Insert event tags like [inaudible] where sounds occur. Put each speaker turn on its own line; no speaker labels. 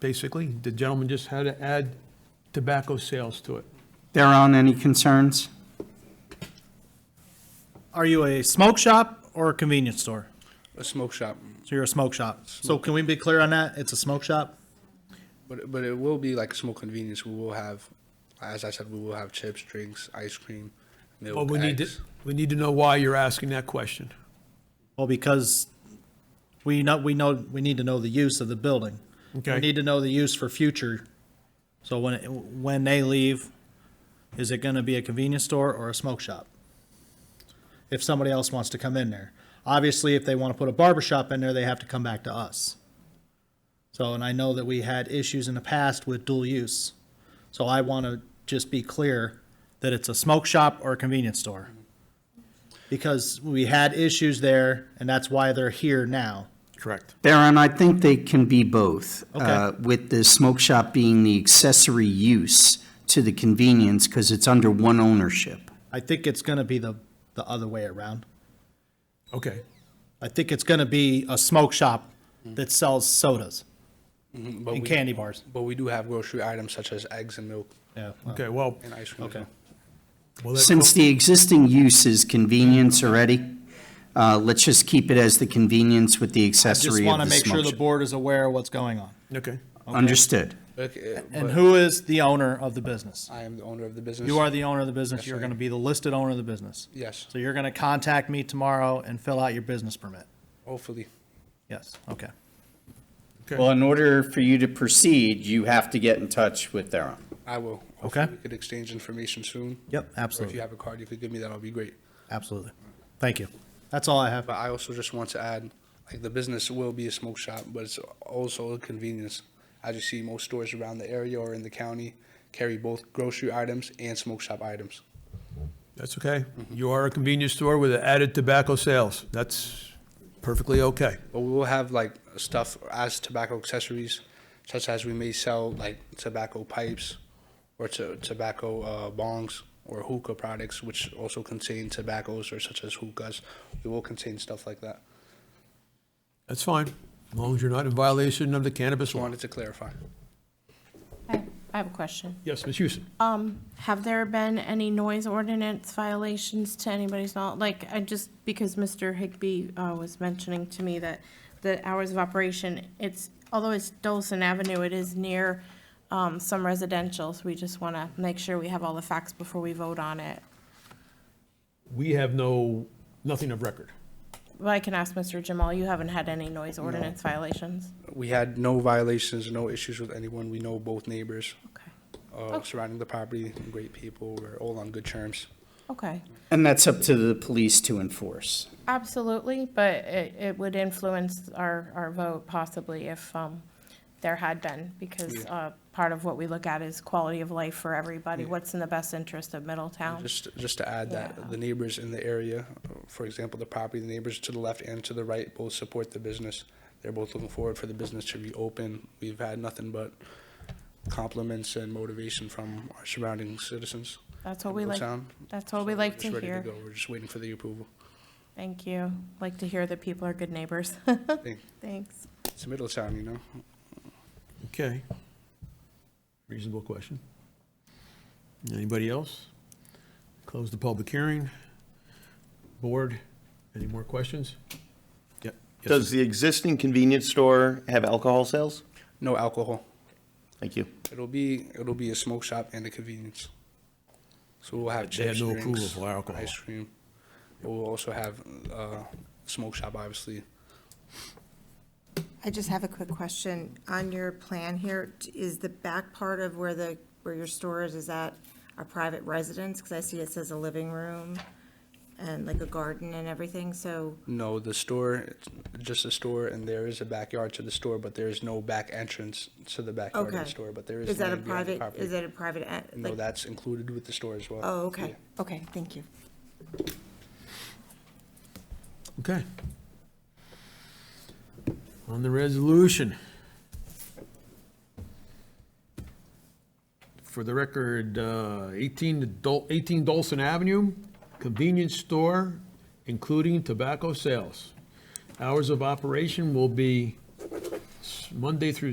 basically. The gentleman just had to add tobacco sales to it.
Thereon, any concerns?
Are you a smoke shop or a convenience store?
a smoke shop,
So you're a smoke shop. So can we be clear on that? It's a smoke shop?
but but it will be like a smoke convenience. We will have, as I said, we will have chips, drinks, ice cream, milk,
But we need to,
eggs.
we need to know why you're asking that question.
Well, because we know, we know, we need to know the use of the building. We
Okay.
need to know the use for future. So when, when they leave, is it gonna be a convenience store or a smoke shop? If somebody else wants to come in there. Obviously, if they wanna put a barber shop in there, they have to come back to us. So, and I know that we had issues in the past with dual use. So I wanna just be clear that it's a smoke shop or a convenience store. Because we had issues there and that's why they're here now.
Correct.
Theron, I think they can be both.
Okay.
uh, With the smoke shop being the accessory use to the convenience, because it's under one ownership.
I think it's going to be the, the other way around.
Okay.
I think it's going to be a smoke shop that sells sodas
Mm-hmm, But
and
we,
candy bars.
But we do have grocery items such as eggs and milk
Yeah. well,
Okay, well.
and ice cream. as
Okay.
well.
well, that-
Since the existing use is convenience already, uh, let's just keep it as the convenience with the
Just
accessory of
want
the
to make sure
smoke
the
shop.
board is aware of what's going on.
Okay.
Understood.
Okay, uh,
And
but
who is the owner of the business?
I am the owner of the business.
You are the owner of the business.
Yes,
You're
I
going to
am.
be the listed owner of the business.
Yes,
So you're going to contact me tomorrow and fill out your business permit.
hopefully.
Yes. Okay.
Well, in order for you to proceed, you have to get in touch with Theron.
I will.
Okay.
Hopefully We could exchange information soon.
Yep.
Or if you
Absolutely.
have a card you could give me, that'll be great.
Absolutely. Thank you. That's all I have.
But I also just want to add, like the business will be a smoke shop, but it's also a convenience. As you see, most stores around the area or in the county carry both grocery items and smoke shop items.
That's okay. You are a convenience store with added tobacco sales. That's perfectly okay.
But we will have like stuff as tobacco accessories, such as we may sell like tobacco pipes or to, tobacco uh, bongs or hookah products, which also contain tobaccos or such as hookahs. We will contain stuff like that.
That's fine, as long as you're not in violation of the cannabis
Just
law.
wanted to clarify.
I I have a question.
Yes, Ms. Houston?
Have there been any noise ordinance violations to anybody's knowledge? Like, I just, because Mr. Higbee uh, was mentioning to me that the hours of operation, it's, although it's Dolson Avenue, it is near um, some residential, so we just want to make sure we have all the facts before we vote on it.
We have no, nothing of record.
But I can ask Mr. Jamal, you haven't had any noise ordinance violations?
We had no violations, no issues with anyone. We know both neighbors
Okay,
uh, surrounding the property, great people. We're all on good terms.
okay.
And that's up to the police to enforce.
Absolutely, but it, it would influence our, our vote possibly if, um, there had been, because, uh, part of what we look at is quality of life for everybody, what's in the best interest of Middletown.
Just, just to add
Um, Yeah.
that, the neighbors in the area, for example, the property, the neighbors to the left and to the right both support the business. They're both looking forward for the business to reopen. We've had nothing but compliments and motivation from our surrounding citizens.
That's
in
what we like,
Middletown.
that's what
So
we
we're
like
just
to
ready
hear.
go. We're just waiting for the approval.
Thank you. Like to hear that people are good neighbors. [laughs]
Thank-
Thanks.
It's Middletown, you know?
Okay. Reasonable question. Anybody else? Close the public hearing. Board, any more questions? Yep. Yes,
Does the existing convenience store have alcohol sales?
No alcohol.
Thank you.
It'll be, it'll be a smoke shop and a convenience. So we'll have
They had
chips,
no approval
drinks,
for alcohol.
ice cream. We'll also have, uh, smoke shop, obviously.
I just have a quick question. On your plan here, t- is the back part of where the, where your store is, is that a private residence? Because I see it says a living room and like a garden and everything, so,
No, the store, it's just a store, and there is a backyard to the store, but there is no back entrance to the backyard of the
Okay.
store, but there is.
is that a
land behind the
private, is
property.
that a private, en-
No,
like,
that's included with the store as well.
oh, okay,
Yeah.
okay, thank you.
Okay. On the resolution. For the record, uh, 18 Dol- 18 Dolson Avenue, convenience store, including tobacco sales. Hours of operation will be s- Monday through